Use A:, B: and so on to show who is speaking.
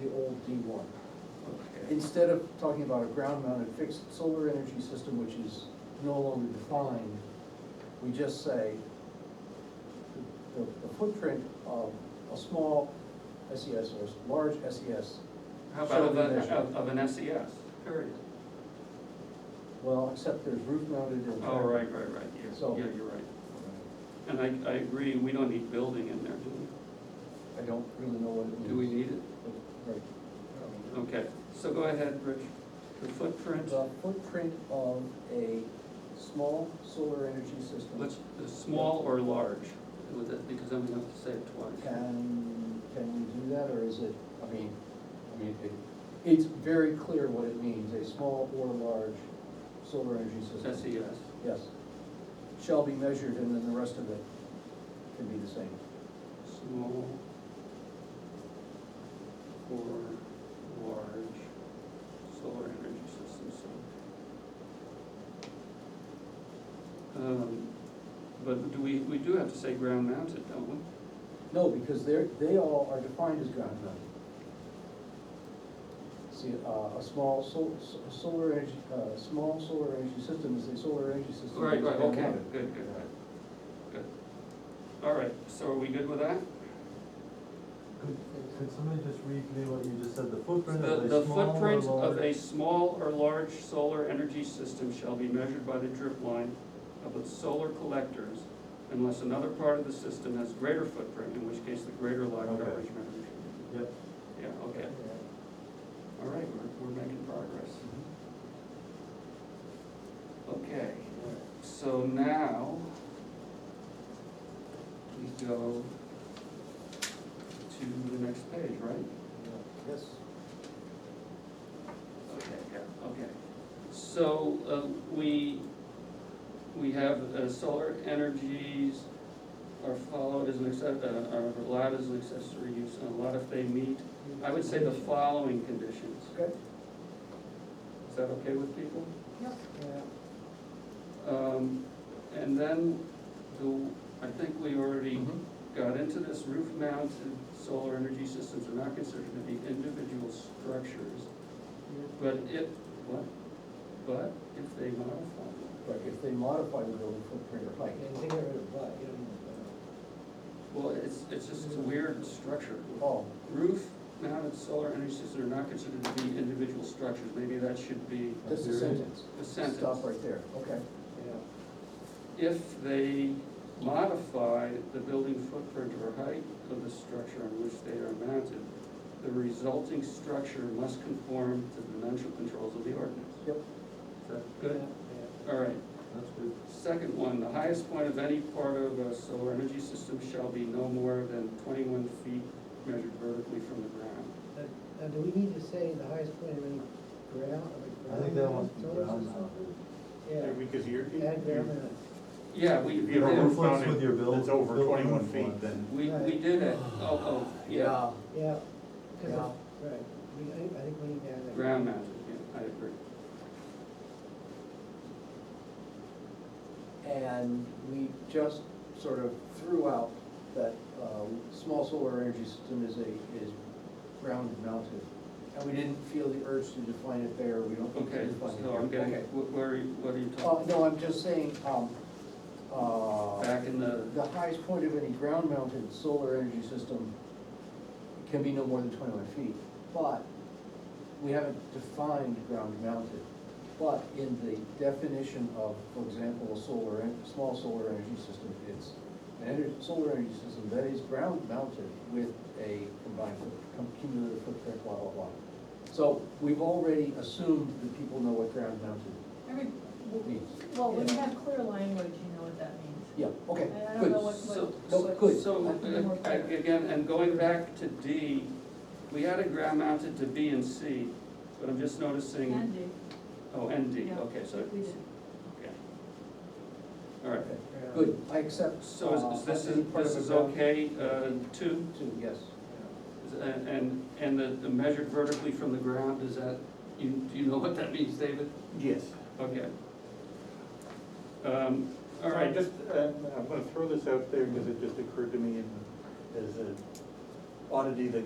A: D one.
B: Okay.
A: Instead of talking about a ground mounted fixed solar energy system, which is no longer defined, we just say the, the footprint of a small SES or a large E SES.
B: How about
A: shall
B: of,
A: be
B: a-
A: measured.
B: of of an E SES?
C: Period.
A: Well, except there's roof mounted and.
B: Oh, right, right, right, yeah,
A: So-
B: yeah, you're right. And I, I agree, we don't need building in there, do
A: I don't really know what it
B: we?
A: means.
B: Do we need it?
A: Right.
B: Okay, so go ahead, Rich. The footprint,
A: The footprint of a small solar energy system.
B: let's, the small or large, with it, because I'm gonna have to say it twice.
A: Can, can we do that, or is it, I mean, I mean, it, it's very clear what it means, a small or large solar energy system.
B: SES,
A: Yes. Shall be measured, and then the rest of it can be the same.
B: small or large solar energy system, so. Um, But do we, we do have to say ground mounted, don't we?
A: No, because they're, they all are defined as ground mounted. See, uh, a small sol- so- solar energy, uh, small solar energy system is a solar energy system.
B: Right,
A: that's
B: right,
A: ground
B: okay,
A: mounted.
B: good, good, right, good. All right, so are we good with that?
D: Could, could somebody just read me what you just said, the footprint
B: The,
D: of a
B: the
D: small or
B: footprint of a
D: large?
B: small or large solar energy system shall be measured by the drip line of its solar collectors unless another part of the system has greater footprint, in which case the greater line
D: Okay.
B: coverage measures.
D: Yep,
B: Yeah, okay,
A: Mm-hmm.
B: all right, we're, we're making progress. Okay, so now we go to the next page, right?
A: Yes.
B: Okay, yeah, okay. So, uh, we, we have, uh, solar energies are followed as an access, uh, are allowed as an accessory use, and allowed if they meet, I would say the following conditions.
A: Okay.
B: Is that okay with people?
C: Yep.
B: Um, and then, the, I think we already
A: Mhm.
B: got into this, roof mounted solar energy systems are not considered to be individual structures. But if, what, but if they modify it,
A: But if they modify the building footprint or height,
C: And they get rid of but, you don't need
B: well, it's, it's just a weird structure.
A: oh,
B: Roof mounted solar energy systems are not considered to be individual structures, maybe that should be
A: that's a sentence.
B: a sentence.
A: Stop right there, okay.
C: that.
B: If they modify the building footprint or height of the structure on which they are mounted, the resulting structure must conform to the dimensional controls of the ordinance.
A: Yep.
B: Is that good?
C: Yeah.
B: All right,
D: that's good.
B: Second one, the highest point of any part of a solar energy system shall be no more than twenty-one feet measured vertically from the ground.
C: Now, now, do we need to say the highest point of any ground, of a
D: I think that
C: ground
D: one's
C: solar
D: ground
C: system?
D: mounted.
C: Yeah,
E: Because you're,
C: add ground
E: you're-
C: mounted.
B: Yeah, we,
E: If
B: we
E: you have a
B: did,
E: roof
D: Conflicts with your
E: mounted
D: build-
E: that's over
D: building
E: twenty-one
D: requirements.
E: feet, then
B: we, we did it, oh, oh, yeah,
C: yeah, cause of, right, we, I, I think we need to add that.
B: ground mounted, yeah, I agree.
A: And we just sort of threw out that, um, small solar energy system is a, is ground mounted. And we didn't feel the urge to define it there, we don't need to
B: Okay,
A: define it.
B: so I'm
A: here.
B: getting,
A: Okay.
B: wh- where, are you- what are you
A: Uh,
B: talking?
A: no, I'm just saying, um, uh.
B: Back in the,
A: The highest point of any ground mounted solar energy system can be no more than twenty-one feet, but we haven't defined ground mounted. But in the definition of, for example, a solar, en- small solar energy system, it's an energy, solar energy system that is ground mounted with a combined foot- com- cumulative footprint, blah, blah, blah. So we've already assumed that people know what ground mounted
F: Every,
A: means.
F: well, when you have clear language, you know what that means.
A: Yeah, okay,
F: I- I don't know
A: good.
F: what-
B: so,
A: No, good.
B: so,
F: Be more
B: uh,
F: clear.
B: again, and going back to D, we added ground mounted to B and C, but I'm just noticing,
F: Andy,
B: oh, and D,
F: Yeah,
B: okay, so,
F: we did.
B: okay. All right,
C: Ground.
A: Good, I accept.
B: So
A: uh,
B: is- is this,
A: any
B: is-
A: part
B: this
A: of
B: is
A: the ground-
B: okay, uh, two,
A: Two, yes.
B: Is- and, and- and the, the measured vertically from the ground, is that, you, do you know what that means, David?
E: yes.
B: Okay. Um, all right,
E: So I'm just, um, I'm, I'm gonna throw this out there because it just occurred to me and as an oddity that